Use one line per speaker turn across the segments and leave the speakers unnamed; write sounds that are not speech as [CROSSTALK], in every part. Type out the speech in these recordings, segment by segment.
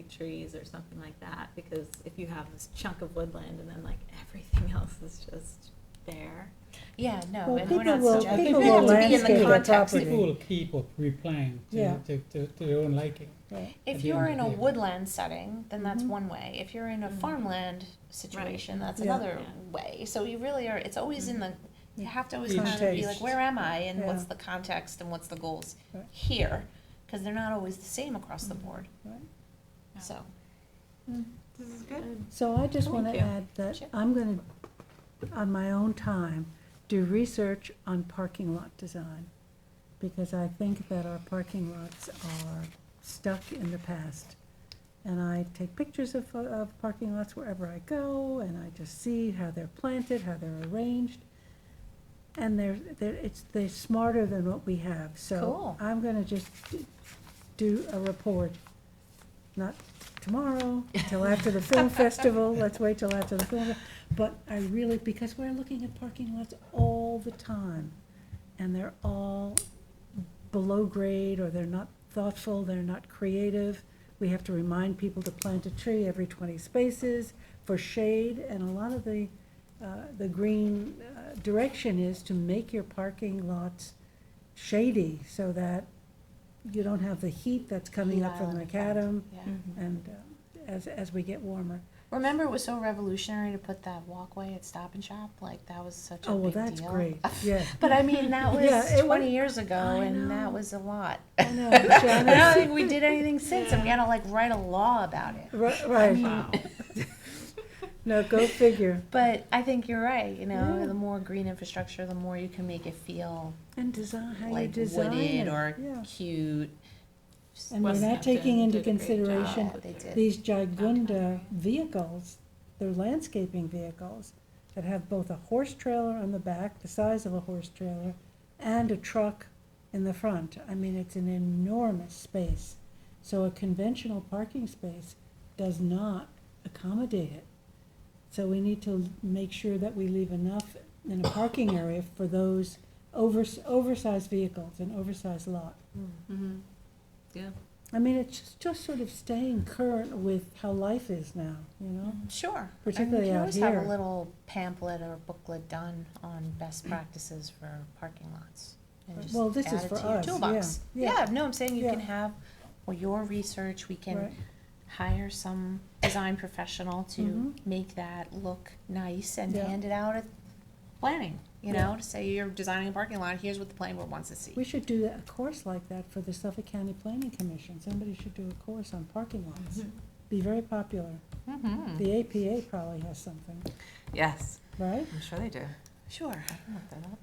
big trees or something like that, because if you have this chunk of woodland and then like everything [LAUGHS] else is just there.
Yeah, no,
Well,
and we're
people
not
will-
suggesting.
people
it has
will
to be in
landscape
the
their
context.
property.
People will keep or replan
Yeah.
to, to, to, to their own liking.
If
Yeah.
you're in a
Yeah.
woodland setting, then that's
Mhm.
one way. If you're in a
Mhm.
farmland situation, that's
Mm-hmm. Yeah.
another
Yeah.
way. So you really are, it's always in the, you
Yeah.
have to always
Each-
kind of be like,
Context.
where am I and what's
Yeah.
the context and what's the goals
Right. Mm-hmm.
here? Because they're not always the same across the board,
Yeah.
so.
This is good.
So I just want
Thank
to
you.
add that
Sure.
I'm going to, on my own time, do research on parking lot design. Because I think that our parking lots are stuck in the past. And I take pictures of, of parking lots wherever I go, and I just see how they're planted, how they're arranged. And they're, they're, it's, they're smarter than what we have, so.
Cool.
I'm gonna just d- do a report, not tomorrow, till after the film festival, let's wait till after the film. fe- But I really, because we're looking at parking lots all the time, and they're all below grade, or they're not thoughtful, they're not creative. We have to remind people to plant a tree every twenty spaces for shade, and a lot of the, uh, the green uh, direction is to make your parking lots shady, so that you don't have the heat that's coming up from
Island
the
effect,
macadam,
yeah.
and uh, as, as we get warmer.
Remember, it was so revolutionary to put that walkway at Stop and Shop, like, that was such a
Oh,
big deal.
well, that's
[LAUGHS]
great, yeah.
But I mean, that was
[LAUGHS] Yeah, it wa-
20 years ago,
I
and
know.
that was a lot.
I know,
I [LAUGHS] don't
Janice.
think we did anything since, and we had to like write a law about it.
Ri- Right, no, go figure.
But I think you're right. You know,
Yeah.
the more green infrastructure, the more you can make it feel
And design, how you
like
design
wooded
it,
or
yeah.
cute.
And we're not
Westhampton
taking into
did a great
consideration
Yeah, they did.
these gigunda vehicles, they're landscaping vehicles that have both a horse trailer on the back, the size of a horse trailer, and a truck in the front. I mean, it's an enormous space. So a conventional parking space does not accommodate it. So we need to make sure that we leave enough in a parking area for those overs- oversized vehicles, an oversized lot.
Hmm.
Mhm. Yeah.
I mean, it's just, just sort of staying current with how life is now, you know?
Sure.
Particularly
I mean,
out
you can always have
here.
a little pamphlet or booklet done on best practices for parking lots. And just
Well, this
add
is
it
for
to your
us, yeah,
toolbox.
yeah.
no, I'm saying you
Yeah.
can have well, your research. We can
Right.
hire some design professional to
Mhm.
make that look nice and
Yeah.
hand it out at planning. You
Yeah.
know, to say you're designing a parking lot. Here's what the planning board wants to see.
We should do a course like that for the Suffolk County Planning Commission. Somebody should do a course on parking lots. Be very popular.
Mm-hmm.
The APA probably has something,
Yes,
right?
I'm sure they do.
Sure.
I can look that up.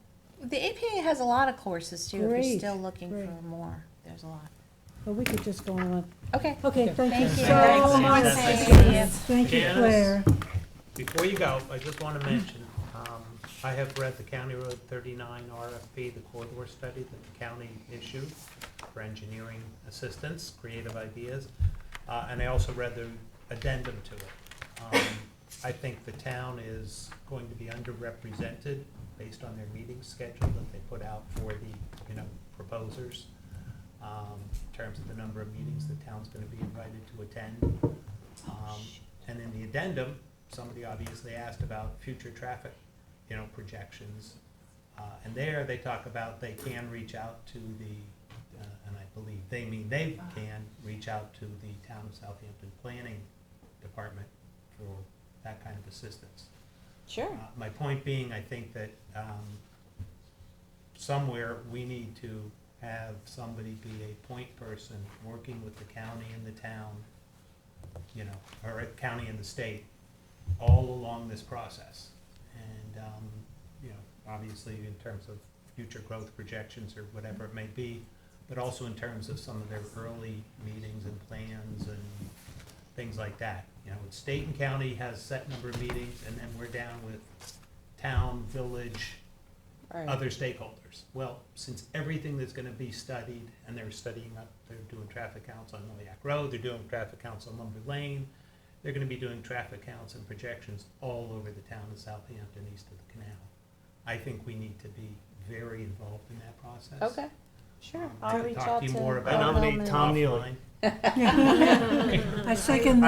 The APA has a lot of courses too. if
Great,
you're still looking
great.
for more, there's a lot.
But we could just go on.
Okay.
Okay, thank you
Thank you.
so
Thanks.
much.
Thank
Susan.
you.
Thank you,
Janice.
Claire.
Before you go, I just want to mention, um, I have read the County Road 39 RFP, the corridor study that the county issued for engineering assistance, creative ideas, uh, and I also read the addendum to it. Um, I think the town is going to be underrepresented based on their meeting schedule that they put out for the, you know, proposers, um, in terms of the number of meetings the town's going to be invited to attend. Um, And in the addendum, somebody obviously asked about future traffic, you know, projections. Uh, And there, they talk about they can reach out to the, uh, and I believe they mean they can reach out to the town of Southampton Planning Department for that kind of assistance.
Sure.
Uh, My point being, I think that um, somewhere, we need to have somebody be a point person, working with the county and the town, you know, or a county and the state, all along this process. And, um, you know, obviously in terms of future growth projections or whatever it may be, but also in terms of some of their early meetings and plans and things like that. You know, state and county has set number of meetings, and then we're down with town, village, other stakeholders. Well, since everything that's gonna be studied, and they're studying up, they're doing traffic counts on Noyak Road, they're doing traffic counts on Lumber Lane, they're gonna be doing traffic counts and projections all over the town of Southampton, east of the canal. I think we need to be very involved in that process.
Sure,
Um, I
I'll
can
reach
talk
out
you
to.
more
Bill
about it
nominate
Hellman.
Tom Neely.
offline. [LAUGHS]
I second